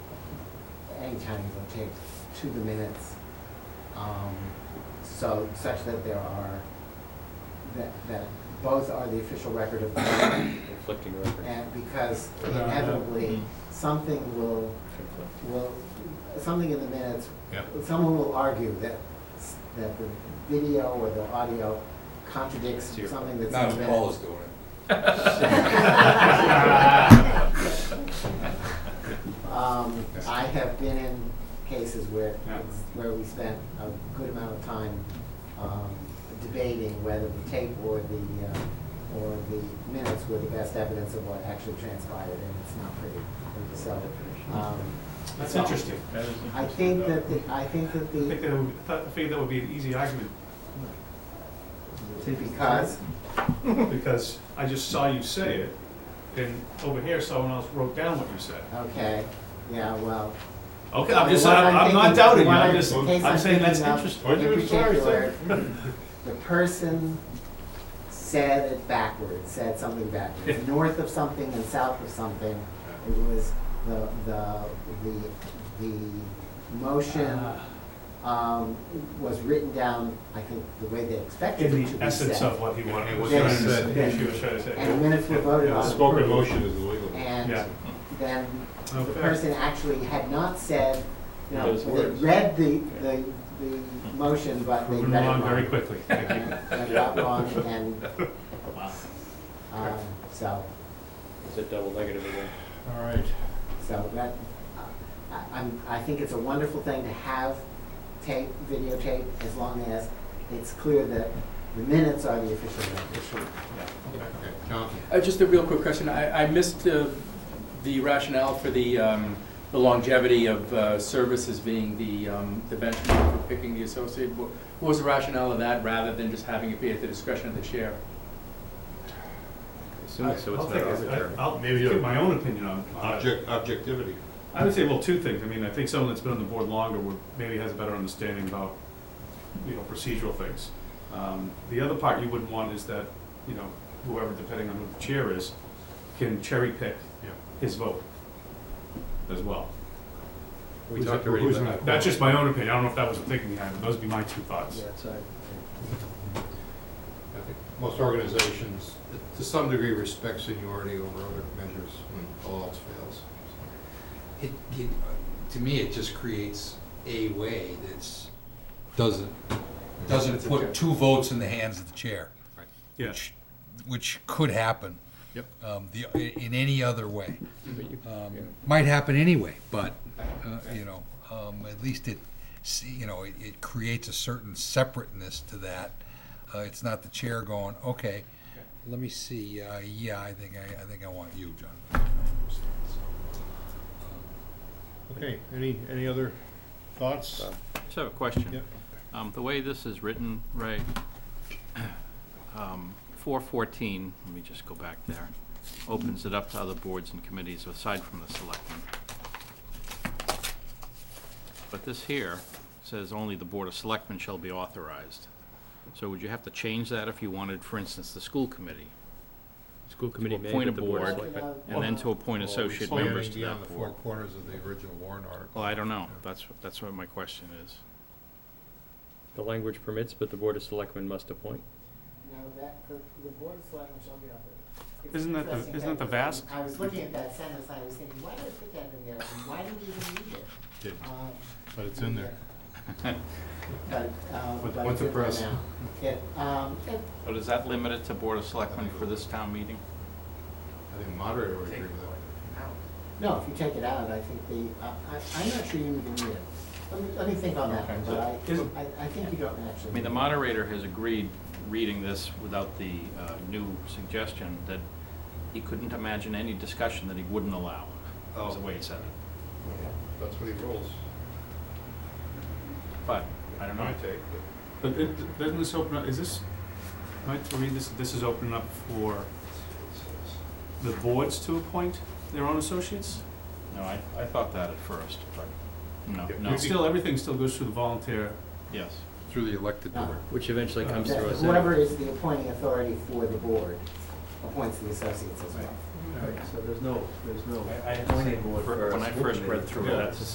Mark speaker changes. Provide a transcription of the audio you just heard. Speaker 1: any kind of object to the minutes, um, so such that there are, that, that both are the official record of the meeting,
Speaker 2: Conflicting records.
Speaker 1: and because
Speaker 3: No, no.
Speaker 1: inevitably, something will,
Speaker 2: Conflict.
Speaker 1: will, something in the minutes,
Speaker 3: Yep.
Speaker 1: someone will argue that, s- that the video or the audio contradicts
Speaker 2: It's your-
Speaker 1: something that's
Speaker 4: Not
Speaker 1: in the minutes.
Speaker 4: if Paul is doing it.
Speaker 1: Um,
Speaker 3: Yes.
Speaker 1: I have been in cases where,
Speaker 3: Yeah.
Speaker 1: it's- where we spent a good amount of time, um, debating whether the tape or the, uh, or the minutes were the best evidence of what actually transpired, and it's not pretty, so, um.
Speaker 3: That's
Speaker 1: so
Speaker 3: interesting.
Speaker 5: That is
Speaker 1: I
Speaker 5: interesting,
Speaker 1: think
Speaker 5: though.
Speaker 1: that the, I think that
Speaker 3: I think
Speaker 1: the,
Speaker 3: that would, I thought- I figured that would be an easy argument,
Speaker 1: because,
Speaker 3: because I just saw you say it, and over here, someone else wrote down what you said.
Speaker 1: okay, yeah, well.
Speaker 3: Okay, I'm just,
Speaker 1: What
Speaker 3: I'm I'm not
Speaker 1: thinking-
Speaker 3: doubting you,
Speaker 1: what
Speaker 3: I'm
Speaker 1: I-
Speaker 3: just,
Speaker 1: the case
Speaker 3: I'm saying that's
Speaker 1: thinking of
Speaker 3: interesting.
Speaker 5: Why don't you
Speaker 1: In
Speaker 5: sorry,
Speaker 1: particular, the person said it backwards, said something backwards, north of something and south of something. It was the, the, the, the motion,
Speaker 3: Ah.
Speaker 1: um, was written down, I think, the way they expected it to
Speaker 3: In
Speaker 1: be
Speaker 3: the essence
Speaker 1: said.
Speaker 3: of what he wanted,
Speaker 5: What
Speaker 3: what
Speaker 5: he
Speaker 3: he
Speaker 1: was
Speaker 3: said,
Speaker 1: trying to say.
Speaker 3: she was trying to say.
Speaker 1: And the minutes were voted
Speaker 3: Yeah.
Speaker 1: on.
Speaker 5: Spoken motion is illegal.
Speaker 3: Yeah.
Speaker 1: And then the
Speaker 3: Okay.
Speaker 1: person actually had not said, you know,
Speaker 2: Those
Speaker 1: they
Speaker 2: words.
Speaker 1: read the, the, the motion, but they
Speaker 3: Moving
Speaker 1: read it
Speaker 3: along
Speaker 1: wrong.
Speaker 3: very quickly, thank you.
Speaker 1: And I got wrong and, um, so,
Speaker 2: It's a double negative again.
Speaker 5: All right.
Speaker 1: so that, uh, I, I'm, I think it's a wonderful thing to have tape, videotape, as long as it's clear that the minutes are the official record.
Speaker 5: Okay, John?
Speaker 6: Uh, Just a real quick question. I I missed uh, the rationale for the um, the longevity of uh, services being the um, the benchmark for picking the associate. Wha- What was the rationale of that, rather than just having it be at the discretion of the chair?
Speaker 2: Assuming so it's
Speaker 3: I'll
Speaker 2: not
Speaker 3: take it.
Speaker 2: arbitrary.
Speaker 3: I- I'll
Speaker 5: Maybe
Speaker 3: give
Speaker 5: a-
Speaker 3: my own opinion on, on it.
Speaker 5: Object, objectivity.
Speaker 3: I would say, well, two things. I mean, I think someone that's been on the board longer would, maybe has a better understanding about, you know, procedural things. Um, the other part you wouldn't want is that, you know, whoever, depending on who the chair is, can cherry pick his vote as well.
Speaker 2: We
Speaker 5: Who's
Speaker 2: talked
Speaker 5: that-
Speaker 2: already
Speaker 5: who's
Speaker 2: about
Speaker 5: in
Speaker 3: That's just my own opinion. I don't know if that was the thinking behind it. Those would be my two thoughts.
Speaker 5: I think most organizations, to some degree, respect seniority over other measures when all else fails.
Speaker 4: It, it, to me, it just creates a way that's, doesn't, doesn't put two votes in the hands of the chair,
Speaker 3: Yeah.
Speaker 4: which could happen.
Speaker 2: Yep.
Speaker 4: Um, the, in any other way.
Speaker 2: But you-
Speaker 4: Um,
Speaker 2: yeah.
Speaker 4: Might happen anyway, but, uh, you know, um, at least it, see, you know, it, it creates a certain separateness to that. Uh, it's not the chair going, okay, let me see, uh, yeah, I think, I, I think I want you, John.
Speaker 5: Okay, any, any other thoughts?
Speaker 7: Just have a question.
Speaker 5: Yep.
Speaker 7: Um, the way this is written, Ray, um, four fourteen, let me just go back there, opens it up to other boards and committees aside from the selectmen. But this here says only the Board of Selectmen shall be authorized. So would you have to change that if you wanted, for instance, the school committee?
Speaker 2: School committee may,
Speaker 7: appoint a
Speaker 2: but the board.
Speaker 7: board.
Speaker 2: of Selectmen-
Speaker 7: And then to appoint associate
Speaker 5: Only
Speaker 7: members to
Speaker 5: beyond
Speaker 7: that
Speaker 5: the four
Speaker 7: board?
Speaker 5: corners of the original Warren article.
Speaker 7: Well, I don't know. That's, that's what my question is.
Speaker 2: The language permits, but the board of selectmen must appoint.
Speaker 1: No, that, the, the board of selectmen shall be on
Speaker 3: Isn't that the-
Speaker 1: Interesting
Speaker 3: isn't that the
Speaker 1: was-
Speaker 3: VASC?
Speaker 1: I was looking at that sentence, and I was thinking, why did I put that in there, and why did we even need it?
Speaker 5: Didn't,
Speaker 1: Um,
Speaker 5: But it's in there.
Speaker 1: But, um,
Speaker 5: With-
Speaker 1: but
Speaker 5: with the
Speaker 1: it's in there
Speaker 5: press.
Speaker 1: now. Yeah, um,
Speaker 7: But is that limited to Board of Selectmen for this town meeting?
Speaker 5: I think the moderator would agree with that.
Speaker 1: no, if you take it out, I think the, uh, I, I'm not sure you even need it. Let me, let me think on that one, but
Speaker 3: Isn't-
Speaker 1: I, I, I think you don't actually.
Speaker 7: I mean,
Speaker 1: need it.
Speaker 7: the moderator has agreed, reading this without the uh, new suggestion, that he couldn't imagine any discussion that he wouldn't allow, is the way he said it.
Speaker 5: That's what he rules.
Speaker 7: But, I don't know.
Speaker 5: My take, but-
Speaker 3: But it, doesn't this open up, is this, am I to read this, this is opening up for the boards to appoint their own associates?
Speaker 7: No, I, I thought that at first, but, no,
Speaker 5: Yeah,
Speaker 7: no,
Speaker 3: It's Still, everything still goes through the volunteer.
Speaker 7: yes.
Speaker 5: Through the elected
Speaker 1: No.
Speaker 5: board.
Speaker 2: Which eventually comes
Speaker 8: Uh,
Speaker 1: That
Speaker 2: through us.
Speaker 1: Whoever is the appointing authority for the board appoints the associates as well.
Speaker 8: Right, so there's no, there's no.
Speaker 2: I had the same
Speaker 7: When I first read through it, that's